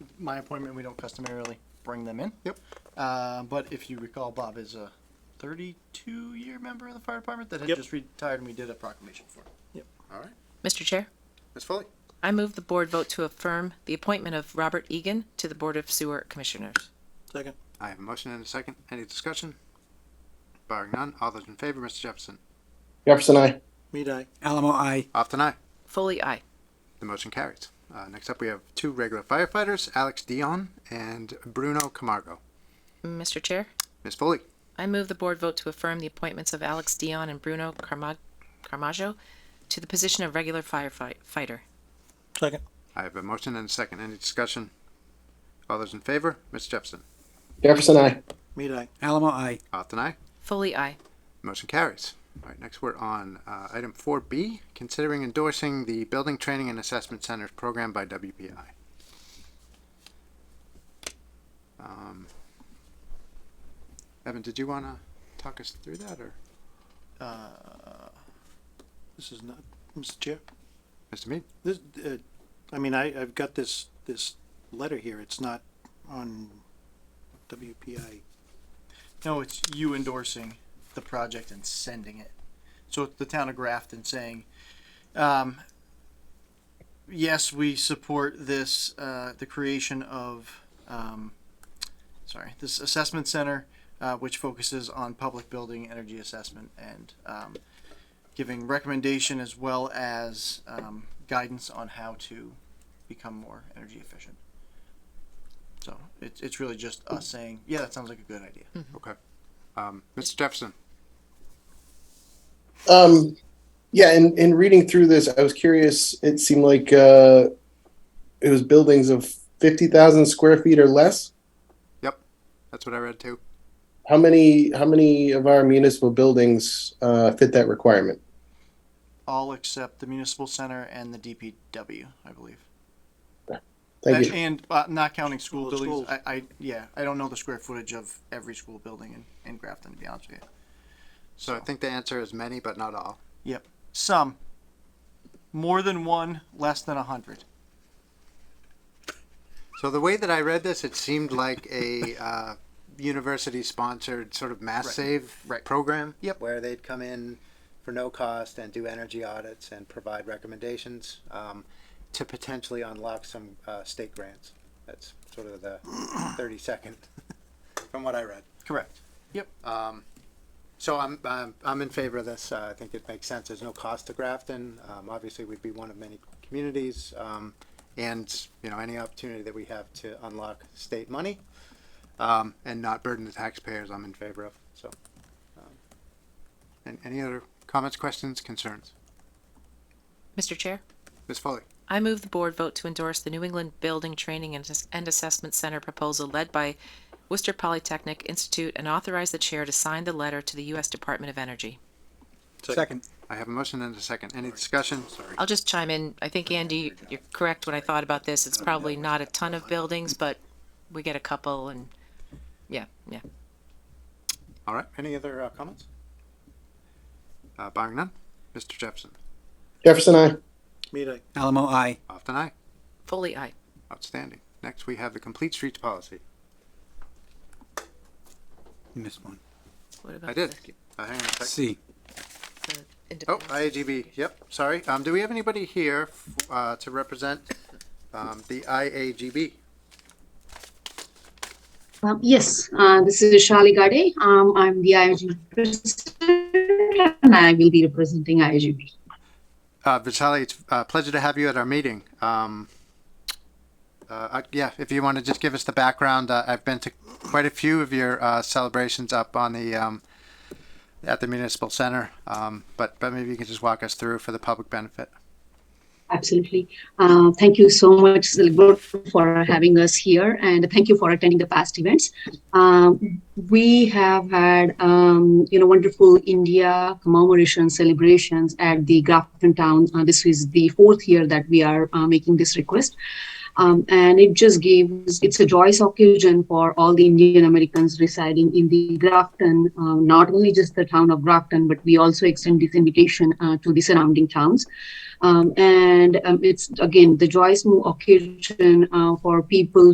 my appointment, we don't customarily bring them in. Yep. Uh, but if you recall, Bob is a 32 year member of the fire department that had Yep. just retired, and we did a proclamation for him. All right. Mr. Chair, Ms. Foley? I move the board vote to affirm the appointment of Robert Egan to the Board of Sewer Commissioners. Second. I have a motion and a second. Any discussion? Barring none, all those in favor, Mr. Jefferson? Jefferson, I. Mead eye. Alamo, I. Off and aye. Foley, aye. The motion carries. Uh, next up, we have two regular firefighters, Alex Dion and Bruno Camargo. Mr. Chair, Ms. Foley? I move the board vote to affirm the appointments of Alex Dion and Bruno Carma- Carmaggio to the position of regular firefighter. Second. I have a motion and a second. Any discussion? All those in favor, Mr. Jefferson? Jefferson, I. Mead eye. Alamo, I. Off and aye. Foley, aye. Motion carries. All right, next we're on uh, item 4B, considering endorsing the Building Training and Assessment Centers program by WPI. Um, Evan, did you want to talk us through that or Uh, This is not, Mr. Chair, Mr. Mead? this, uh, I mean, I, I've got this, this letter here. It's not on WPI. no, it's you endorsing the project and sending it. So it's the town of Grafton saying, um, yes, we support this, uh, the creation of, um, sorry, this assessment center, uh, which focuses on public building energy assessment and, um, giving recommendation as well as, um, guidance on how to become more energy efficient. So it's, it's really just us saying, yeah, that sounds like a good idea. Okay. Um, Mr. Jefferson? Um, yeah, in, in reading through this, I was curious. It seemed like uh, it was buildings of 50,000 square feet or less. That's what I read too. How many, how many of our municipal buildings uh, fit that requirement? all except the municipal center and the DPW, I believe. Thank and you. and, uh, not counting school Well, buildings, schools. I, I yeah, I don't know the square footage of every school building in, in Grafton to be honest with you. So I think the answer is many, but not all. Some, more than one, less than a hundred. So the way that I read this, it seemed like a uh, university-sponsored sort of mass Right. save Right. program. Yep. Where they'd come in for no cost and do energy audits and provide recommendations um, to potentially unlock some uh, state grants. That's sort of the thirty-second from what I read. Correct. Um, so I'm, I'm, I'm in favor of this. Uh, I think it makes sense. There's no cost to Grafton. Um, obviously, we'd be one of many communities. Um, and, you know, any opportunity that we have to unlock state money, um, and not burden the taxpayers, I'm in favor of. So, um, and any other comments, questions, concerns? Mr. Chair, Ms. Foley? I move the board vote to endorse the New England Building Training and Ass- and Assessment Center proposal led by Worcester Polytechnic Institute and authorize the chair to sign the letter to the U.S. Department of Energy. Second. I have a motion and a second. Any discussion? Sorry. I'll just chime in. I think, Andy, you're correct when I thought about this. It's probably not a ton of buildings, but we get a couple and, yeah, yeah. All right. Any other uh, comments? Uh, barring none, Mr. Jefferson. Jefferson, I. Mead eye. Alamo, I. Off and aye. Foley, aye. Outstanding. Next, we have the complete streets policy. You missed one. What about I did. the- Uh, hang on a sec. C. the Oh, independent- IAGB. Yep. Sorry. Um, do we have anybody here uh, to represent um, the IAGB? Um, yes, uh, this is Shali Gade. Um, I'm the IIG president and I will be representing IIGB. Uh, Vitaly, it's a pleasure to have you at our meeting. Um, uh, I- yeah, if you want to just give us the background, uh, I've been to quite a few of your uh, celebrations up on the um, at the municipal center, um, but but maybe you can just walk us through for the public benefit. Absolutely. Uh, thank you so much, Select Board, for having us here, and thank you for attending the past events. Um, we have had, um, you know, wonderful India commemoration celebrations at the Grafton Town. Uh, this is the fourth year that we are uh, making this request. Um, and it just gives, it's a joyous occasion for all the Indian Americans residing in the Grafton, uh, not only just the town of Grafton, but we also extend this invitation uh, to the surrounding towns um, and um, it's again the joyous occasion uh, for people